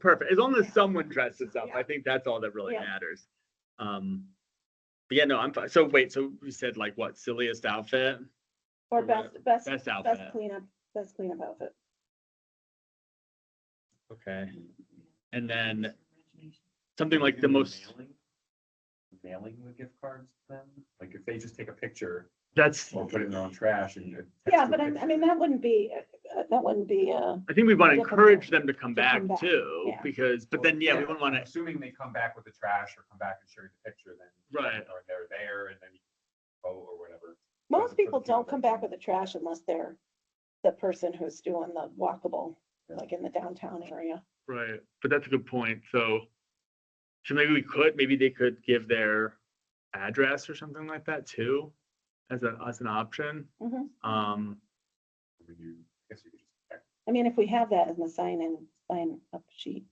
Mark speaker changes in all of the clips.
Speaker 1: Perfect. As long as someone dresses up,
Speaker 2: Yeah.
Speaker 1: I think that's all that really
Speaker 2: Yeah.
Speaker 1: matters. Um, but yeah, no, I'm fine. So wait, so you said like what silliest outfit? Or
Speaker 2: Or
Speaker 1: what-
Speaker 2: best, best,
Speaker 1: Best
Speaker 2: best
Speaker 1: outfit.
Speaker 2: cleanup, best cleanup outfit.
Speaker 1: Okay. And then something like the most,
Speaker 3: Mailing- Mailing the gift cards to them, like if they just take a picture
Speaker 1: that's,
Speaker 3: or put it in their own trash and. attach
Speaker 2: Yeah,
Speaker 3: to a
Speaker 2: but I, I
Speaker 3: picture.
Speaker 2: mean, that wouldn't be, uh, that wouldn't be, uh,
Speaker 1: I think we want to
Speaker 2: Difficult
Speaker 1: encourage them to come
Speaker 2: to
Speaker 1: back
Speaker 2: come back,
Speaker 1: too,
Speaker 2: yeah.
Speaker 1: because, but then, yeah, we wouldn't want to,
Speaker 3: Assuming they come back with the trash or come back and show you the picture, then.
Speaker 1: Right.
Speaker 3: Or they're there and then you vote or whatever.
Speaker 2: most
Speaker 3: a
Speaker 2: people
Speaker 3: perfume
Speaker 2: don't come back
Speaker 3: company.
Speaker 2: with the trash unless they're the person who's doing the walkable,
Speaker 3: Yeah.
Speaker 2: like in the downtown area.
Speaker 1: right, but that's a good point. So, so maybe we could, maybe they could give their address or something like that too, as a, as an option.
Speaker 2: Mhm.
Speaker 1: Um,
Speaker 3: I mean, you, I guess you could just. check.
Speaker 2: I mean, if we have that in the sign-in, sign-up sheet.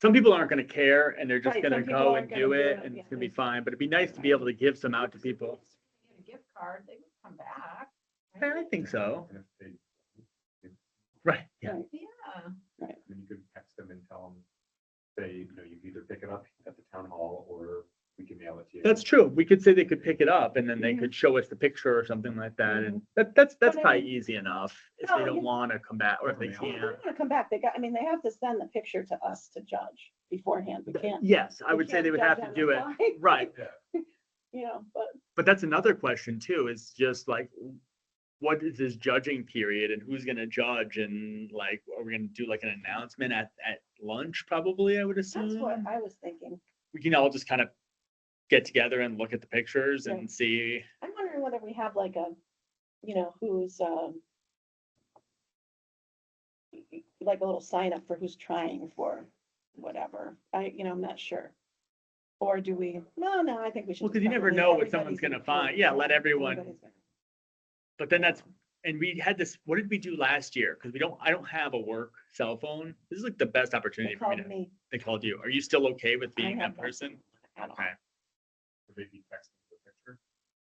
Speaker 1: some people aren't gonna care and they're just
Speaker 2: Right,
Speaker 1: gonna
Speaker 2: some people
Speaker 1: go and
Speaker 2: aren't gonna
Speaker 1: do
Speaker 2: do
Speaker 1: it
Speaker 2: it,
Speaker 1: and
Speaker 2: yeah.
Speaker 1: it's gonna be fine, but it'd be nice to be able to give some out to people.
Speaker 4: Get a gift card, they would come back.
Speaker 1: Yeah, I
Speaker 4: right?
Speaker 1: think so.
Speaker 3: And if they,
Speaker 1: Right, yeah,
Speaker 4: Yeah.
Speaker 3: then you could text them and tell them, say, you know, you can either pick it up at the town hall or we can mail it to you.
Speaker 1: that's true. We could say they could pick it up and then they
Speaker 2: Mhm.
Speaker 1: could show us the picture or something like that.
Speaker 2: Mhm.
Speaker 1: And that, that's, that's
Speaker 2: But I Oh,
Speaker 1: probably easy enof. if they
Speaker 2: No,
Speaker 1: don't
Speaker 2: you-
Speaker 1: wanna come back or if they
Speaker 3: Yeah.
Speaker 2: They
Speaker 1: can't.
Speaker 2: want to come back. They got, I mean, they have to send the picture to us to judge beforehand. We can't.
Speaker 1: Yes, I
Speaker 2: we
Speaker 1: would say
Speaker 2: can't
Speaker 1: they would
Speaker 2: judge
Speaker 1: have to
Speaker 2: on the
Speaker 1: do it.
Speaker 2: fly,
Speaker 1: Right,
Speaker 3: Yeah.
Speaker 2: You know, but
Speaker 1: but that's another question too, is just like, what is this judging period and who's gonna judge and like, are we gonna do like an announcement at, at lunch probably, I would assume?
Speaker 2: that's what I was thinking.
Speaker 1: we can all just kind of get together and look at the pictures
Speaker 2: Right.
Speaker 1: and see.
Speaker 2: I'm wondering whether we have like a, you know, who's, um, like a little sign up for who's trying for whatever. I, you know, I'm not sure. Or do we, no, no, I think we should.
Speaker 1: Well, 'cause
Speaker 2: just
Speaker 1: you
Speaker 2: let
Speaker 1: never
Speaker 2: everybody-
Speaker 1: know what someone's
Speaker 2: everybody's
Speaker 1: gonna find. Yeah, let everyone-
Speaker 2: everybody's gonna-
Speaker 1: But then that's, and we had this, what did we do last year? Because we don't, I don't have a work cell phone. This is like the best
Speaker 2: They
Speaker 1: opportunity for me
Speaker 2: called
Speaker 1: to,
Speaker 2: me.
Speaker 1: they called you. Are you still okay with being
Speaker 2: have
Speaker 1: that
Speaker 2: that.
Speaker 1: person?
Speaker 2: I don't-
Speaker 1: Okay.
Speaker 3: Or Maybe text them the picture.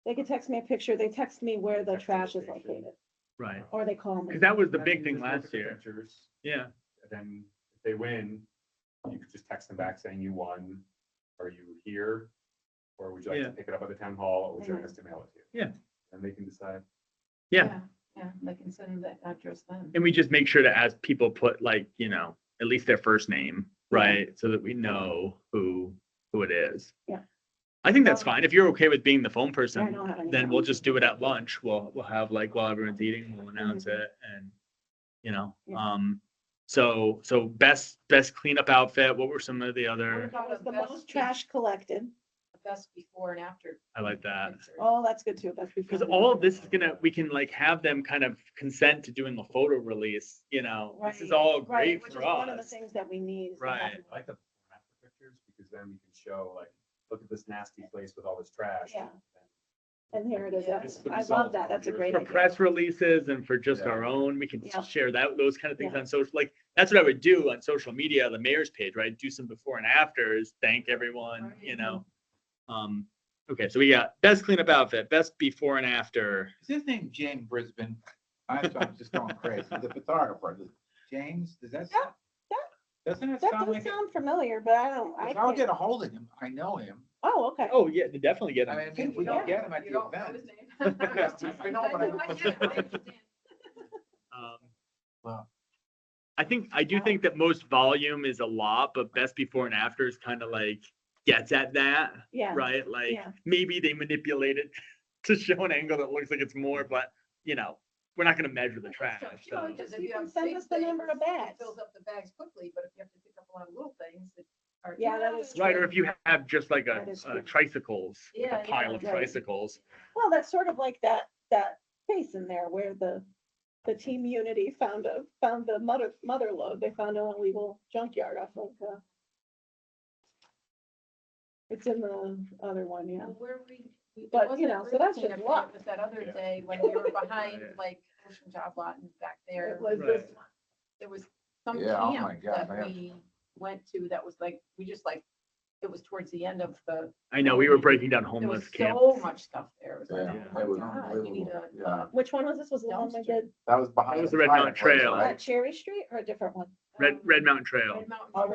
Speaker 2: They could text me a picture. They text me where the
Speaker 3: Text the
Speaker 2: trash is
Speaker 3: location.
Speaker 2: located,
Speaker 1: Right.
Speaker 2: or they call me.
Speaker 1: Because that was the
Speaker 3: Then
Speaker 1: big
Speaker 3: you
Speaker 1: thing
Speaker 3: just look at
Speaker 1: last
Speaker 3: the
Speaker 1: year.
Speaker 3: pictures,
Speaker 1: Yeah.
Speaker 3: and Then if they win, you could just text them back saying you won. Are you here? Or would you like
Speaker 1: Yeah.
Speaker 3: to pick it up at the town hall or would you like us to mail it to you?
Speaker 1: Yeah.
Speaker 3: And they can decide.
Speaker 1: Yeah.
Speaker 4: Yeah, they can send that address then.
Speaker 1: And we just make sure to ask people put like, you know, at least their first name, right? So that we know who, who it is.
Speaker 2: Yeah.
Speaker 1: I think that's
Speaker 2: Well-
Speaker 1: fine. If you're okay with being the phone
Speaker 2: I
Speaker 1: person,
Speaker 2: don't have any
Speaker 1: then we'll
Speaker 2: phone.
Speaker 1: just do it at lunch. We'll, we'll have like while everyone's eating, we'll announce it and, you know,
Speaker 2: Mm-hmm. Yeah.
Speaker 1: um, so, so best, best cleanup outfit. What were some of the
Speaker 4: What
Speaker 1: other,
Speaker 2: That
Speaker 4: about
Speaker 2: was
Speaker 4: a
Speaker 2: the most
Speaker 4: best,
Speaker 2: trash collected.
Speaker 4: best before and after?
Speaker 1: I like that.
Speaker 4: pictures?
Speaker 2: Oh, that's good too. That's.
Speaker 1: Cause all of this is gonna, we can like have them kind of consent to doing the photo release, you know, this is
Speaker 2: Right,
Speaker 1: all
Speaker 2: Right,
Speaker 1: great
Speaker 2: which is
Speaker 1: for
Speaker 2: one of the
Speaker 1: us.
Speaker 2: things that we need. is to have
Speaker 1: Right.
Speaker 3: I like the before and after pictures because then we can show like, look at this nasty place with all this trash.
Speaker 2: Yeah. And here it is.
Speaker 4: Yeah.
Speaker 2: That's-
Speaker 3: Just the
Speaker 2: I love
Speaker 3: result
Speaker 2: that.
Speaker 3: of
Speaker 2: That's a
Speaker 3: your-
Speaker 2: great
Speaker 1: For
Speaker 3: Right.
Speaker 2: idea.
Speaker 1: press releases and for just
Speaker 3: Yeah.
Speaker 1: our own, we can
Speaker 2: Yeah.
Speaker 1: share that, those kind of things
Speaker 2: Yeah.
Speaker 1: on social, like, that's what I would do on social media, the mayor's page, right? Do some before and afters, thank everyone, you
Speaker 4: Right.
Speaker 1: know? Um, okay, so we got best cleanup outfit, best before and after.
Speaker 5: Is his name James Brisbane? I'm, sorry, I'm just going crazy. The photographer, James, does that? sound- Doesn't it
Speaker 2: That
Speaker 5: sound
Speaker 2: does
Speaker 5: like? it?
Speaker 2: sound familiar, but I don't, I
Speaker 5: If I'll
Speaker 2: can't.
Speaker 5: get a hold of him, I know him.
Speaker 2: Oh, okay.
Speaker 1: Oh, yeah, they definitely get
Speaker 5: I mean,
Speaker 1: it.
Speaker 5: if we don't get him at
Speaker 4: You
Speaker 5: the
Speaker 4: don't know
Speaker 5: event.
Speaker 4: his name. I
Speaker 5: I know, but
Speaker 4: know, I get it, I
Speaker 5: I-
Speaker 4: understand.
Speaker 1: Um,
Speaker 5: Well,
Speaker 1: I think, I do think that most volume is a lot, but best before and after is kind of like gets at that,
Speaker 2: Yeah.
Speaker 1: right? Like,
Speaker 2: yeah.
Speaker 1: maybe they manipulate it to show an angle that looks like it's more, but, you know, we're not gonna measure the trash,
Speaker 4: You know,
Speaker 1: so.
Speaker 4: because if
Speaker 2: You
Speaker 4: you
Speaker 2: can
Speaker 4: have
Speaker 2: send
Speaker 4: big
Speaker 2: us the number of
Speaker 4: things, it
Speaker 2: bags.
Speaker 4: Fills up the bags quickly, but if you have to pick up a lot of little things that are.
Speaker 2: Yeah, that is
Speaker 1: Right, or if you have just like a,
Speaker 2: That is
Speaker 1: a
Speaker 2: true.
Speaker 1: tricycles, like
Speaker 4: Yeah,
Speaker 1: a pile
Speaker 4: yeah,
Speaker 1: of
Speaker 2: right.
Speaker 1: tricycles.
Speaker 2: Well, that's sort of like that, that space in there where the, the team unity found a, found the mother, mother lode. They found an illegal junkyard off of, uh, it's in the other one, yeah.
Speaker 4: Well, Where we. we- it
Speaker 2: But, you
Speaker 4: wasn't
Speaker 2: know, so
Speaker 4: really
Speaker 2: that's
Speaker 4: clean
Speaker 2: just
Speaker 4: up day,
Speaker 2: luck.
Speaker 4: But that other
Speaker 3: Yeah.
Speaker 4: day when we were behind
Speaker 1: Right.
Speaker 4: like Ocean Job Lot and back there,
Speaker 2: It was
Speaker 1: Right.
Speaker 2: this,
Speaker 4: there was some
Speaker 5: Yeah, oh my
Speaker 4: camp
Speaker 5: God,
Speaker 4: that
Speaker 5: man.
Speaker 4: we went to that was like, we just like, it was towards the end of the,
Speaker 1: I know, we were breaking down
Speaker 4: there was
Speaker 1: homeless camp.
Speaker 4: so much stuff there. It was
Speaker 5: yeah,
Speaker 4: like,
Speaker 1: Yeah.
Speaker 4: oh
Speaker 5: it was
Speaker 4: my God, you need
Speaker 5: unbelievable.
Speaker 4: a-
Speaker 5: Yeah,
Speaker 2: which one was this? Was it the one we
Speaker 4: Dumpster.
Speaker 2: did,
Speaker 5: that was behind.
Speaker 1: was the Red Mountain
Speaker 5: fireplace,
Speaker 1: Trail.
Speaker 2: uh,
Speaker 5: right?
Speaker 2: Cherry Street or a different one?
Speaker 1: Red,
Speaker 4: um,
Speaker 1: Red Mountain Trail.
Speaker 4: Red Mountain
Speaker 2: Oh,
Speaker 4: Trail.